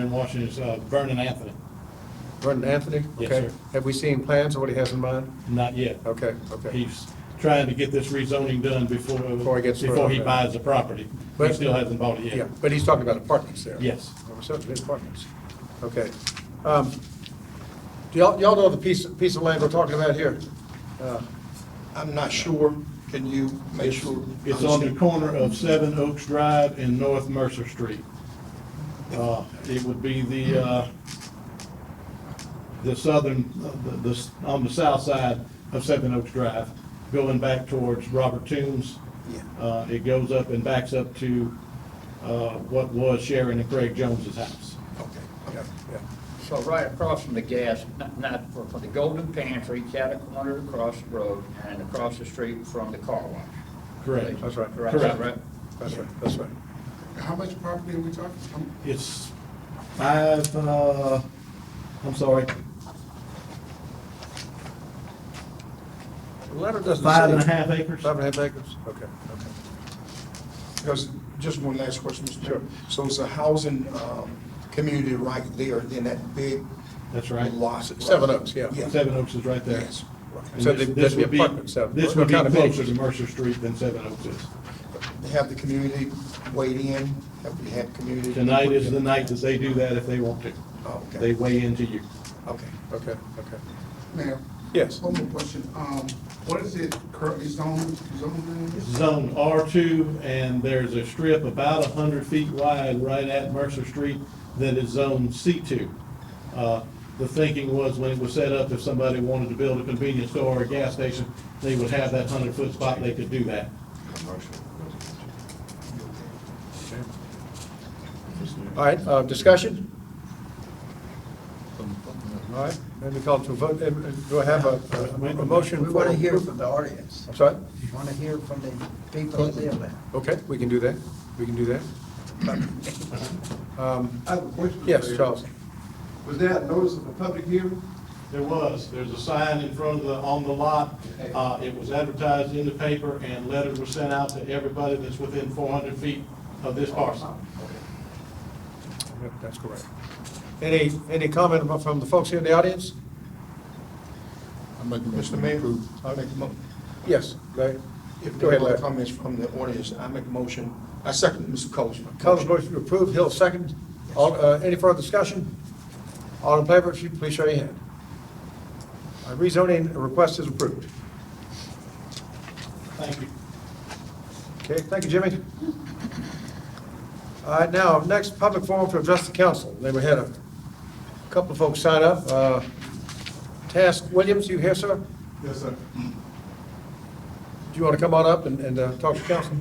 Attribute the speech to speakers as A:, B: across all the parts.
A: in Washington is uh, Vernon Anthony.
B: Vernon Anthony?
A: Yes,
B: Okay.
A: sir.
B: Have we seen plans of what he has in mind?
A: Not yet.
B: Okay, okay.
A: He's trying to get this rezoning done before,
B: Before he gets-
A: before he buys the property. He
B: But-
A: still hasn't bought it
B: Yeah,
A: yet.
B: but he's talking about apartments there.
A: Yes.
B: Oh, so it's apartments. Okay. Um, Do y'all, y'all know the piece, piece of land we're talking about here? Uh,
C: I'm not sure. Can you make sure?
A: It's on the corner of Seven Oaks Drive and North Mercer Street. Uh, It would be the, uh, the southern, the, the- on the south side of Seven Oaks Drive, going back towards Robert Toombs.
C: Yeah.
A: Uh, It goes up and backs up to uh, what was Sharon and Craig Jones's house.
C: Okay, okay.
B: Yeah, yeah.
D: So right across from the gas, not, not for, for the Golden Pantry, catty corner across the road and across the street from the car wash.
A: Correct.
B: That's right.
D: Correct, is that
A: Correct.
D: right?
B: That's right, that's right.
C: How much property are we talking? Um,
A: It's five, uh, I'm sorry,
B: The letter doesn't say.
A: five and a half acres.
B: Five and a half acres? Okay, okay.
C: Because, just one last question, Mr.
B: Sure.
C: Chairman. So it's a housing, um, community right there, then that big.
A: That's right.
C: Lot.
B: Seven Oaks, yeah.
A: Seven Oaks is right there.
C: Yes.
A: And
B: So
A: this-
B: they-
A: this
B: there'd be
A: would
B: apartments out-
A: This would be
B: kind of big.
A: closer to Mercer Street than Seven Oaks is.
C: They Have the community weighed in, have we had community?
A: Tonight is the night that they do that if they want to.
C: Oh, okay.
A: They weigh into you.
C: Okay.
B: Okay, okay.
E: Mayor?
B: Yes.
E: One more question. Um, what is it currently zoned, zoned
A: It's
E: in?
A: zone R2, and there's a strip about 100 feet wide right at Mercer Street that is zone C2. Uh, The thinking was when it was set up, if somebody wanted to build a convenience store or a gas station, they would have that 100-foot spot, they could do that.
B: All right, uh, discussion? All right, let me call to a vote. Uh, Do I have a, a- a motion?
F: We want to hear from the audience.
B: I'm sorry?
F: We want to hear from the people that live there.
B: Okay, we can do that. We can do that. Um,
E: I have a question.
B: Yes,
E: Mayor.
B: Charles.
E: Was there a notice of a public hearing?
A: There was, there's a sign in front of the, on the lot. Uh, It was advertised in the paper, and letters were sent out to everybody that's within 400 feet of this parcel.
B: Yep, That's correct. Any, any comment about- from the folks here in the audience?
C: Mr. Mayor, I make a mo,
B: Yes, go ahead.
C: if
B: Go ahead,
C: there are
B: Larry.
C: comments from the audience, I make a motion. I second Mr. Coleman.
B: Collins motion to approve, Hill second. All, uh, any further discussion? All in favor, if you please show your hand. Uh, Rezoning request is approved.
A: Thank you.
B: Okay, thank you, Jimmy. All right, now, next public forum to address the council. Then we had a couple of folks sign up. Uh, Task Williams, you here, sir? Do
E: Yes, sir.
B: you want to come on up and, and uh, talk to council?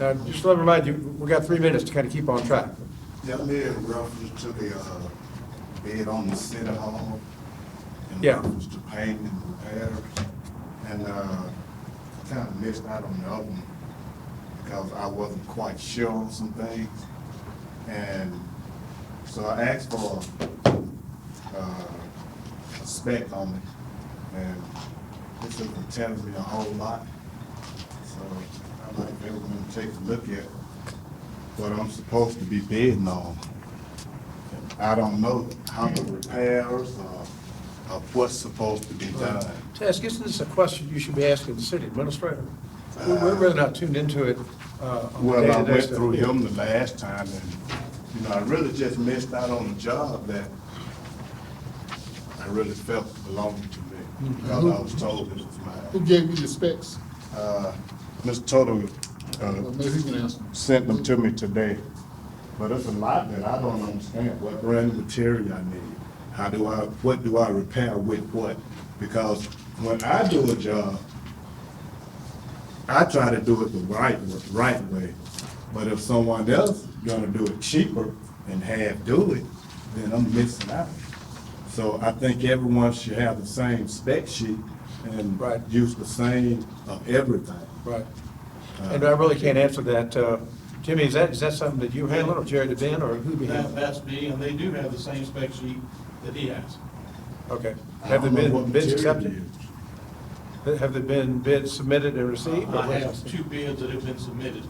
B: Now, just let me remind you, we got three minutes to kind of keep on track.
G: That me in reference to the, uh, bid on the city hall. In
B: Yeah.
G: reference to paint and repairs, and, uh, kinda missed out on the other one, because I wasn't quite sure on some things. And so I asked for, uh, a spec on it, and this isn't telling me a whole lot. So I'd like everyone to take a look at what I'm supposed to be bidding on. I don't know how the repairs or, or what's supposed to be done.
B: Task, isn't this a question you should be asking the city administrator? We're we're really not tuned into it. uh, on a
G: Well, I
B: day-to-day
G: went
B: stuff.
G: through him the last time and, you know, I really just missed out on a job that I really felt belonged to me. Because I was told it was
H: Who
G: mine.
H: gave you the specs?
G: Uh, Mr. Toto, uh,
H: Well, maybe he can answer.
G: sent them to me today. But it's a lot that I don't understand, what brand of material I need. How do I, what do I repair with what? Because when I do a job, I try to do it the right, wa- right way. But if someone else gonna do it cheaper and half do it, then I'm missing out. So I think everyone should have the same spec sheet and
B: Right.
G: use the same of everything.
B: Right. And I really can't answer that. Uh, Jimmy, is that, is that something that you handle, or Jerry DeVin, or who be
A: That,
B: handling?
A: that's me, and they do have the same spec sheet that he has.
B: Okay.
G: I
B: Have the
G: don't know what
B: bid- bids
G: material to
B: accepted?
G: use.
B: Have there been bids submitted and received? or
A: I
B: what is
A: have
B: it?
A: two bids that have been submitted.